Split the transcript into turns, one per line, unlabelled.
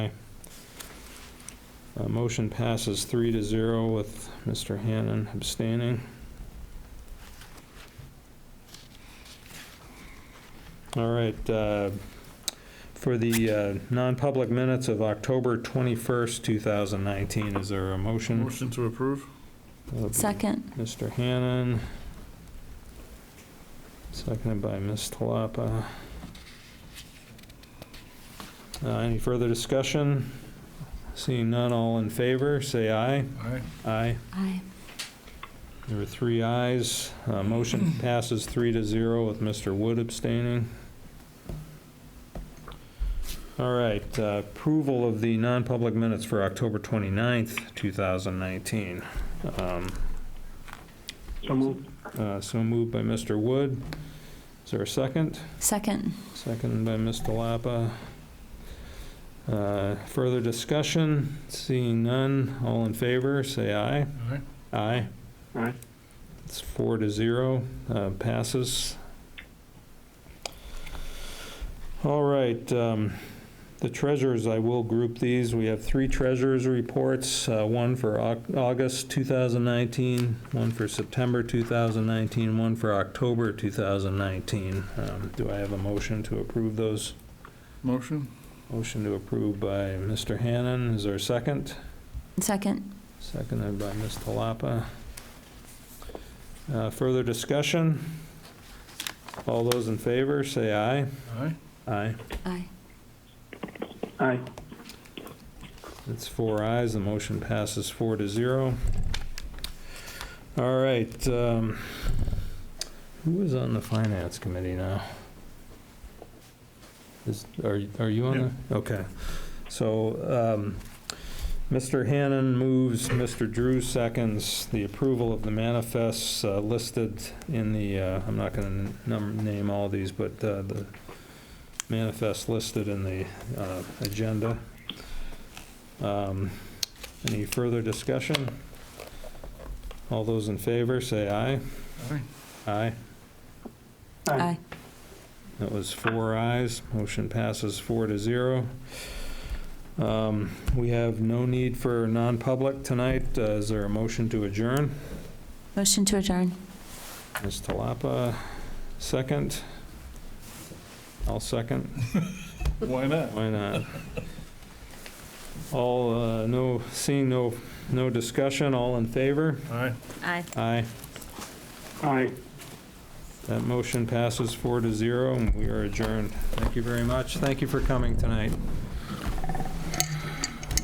Uh, Motion passes three to zero with Mr. Hannan abstaining. All right, uh, for the uh, non-public minutes of October 21st, 2019, is there a motion?
Motion to approve?
That'll be
Second.
Mr. Hannan, seconded by Ms. Talapa. Uh, Any further discussion? Seeing none, all in favor, say aye.
Aye.
Aye.
Aye.
There were three ayes. Uh, Motion passes three to zero with Mr. Wood abstaining. All right, uh, approval of the non-public minutes for October 29th, 2019. Um,
So moved.
uh, So moved by Mr. Wood. Is there a second?
Second.
Seconded by Ms. Delapa. Uh, Further discussion? Seeing none, all in favor, say aye.
Aye.
Aye.
Aye.
It's four to zero, uh, passes. All right, um, the treasurers, I will group these. We have three treasurers' reports, uh, one for Au- August 2019, one for September 2019, one for October 2019. Um, Do I have a motion to approve those?
Motion?
Motion to approve by Mr. Hannan, is there a second?
Second.
Seconded by Ms. Talapa. Uh, Further discussion? All those in favor, say aye.
Aye.
Aye.
Aye.
Aye.
It's four ayes, the motion passes four to zero. All right, um, who is on the Finance Committee now? Is, are you- are you on the? Okay, so um, Mr. Hannan moves, Mr. Drew seconds, the approval of the manifests uh, listed in the, uh, I'm not going to name all these, but uh, the manifests listed in the uh, agenda. Um, Any further discussion? All those in favor, say aye.
Aye.
Aye.
Aye.
That was four ayes. Motion passes four to zero. Um, We have no need for non-public tonight. Uh, Is there a motion to adjourn?
Motion to adjourn.
Ms. Talapa, second? I'll second.
Why not?
Why not? All, uh, no, seeing no, no discussion, all in favor?
Aye.
Aye.
Aye.
Aye.
That motion passes four to zero, and we are adjourned. Thank you very much. Thank you for coming tonight.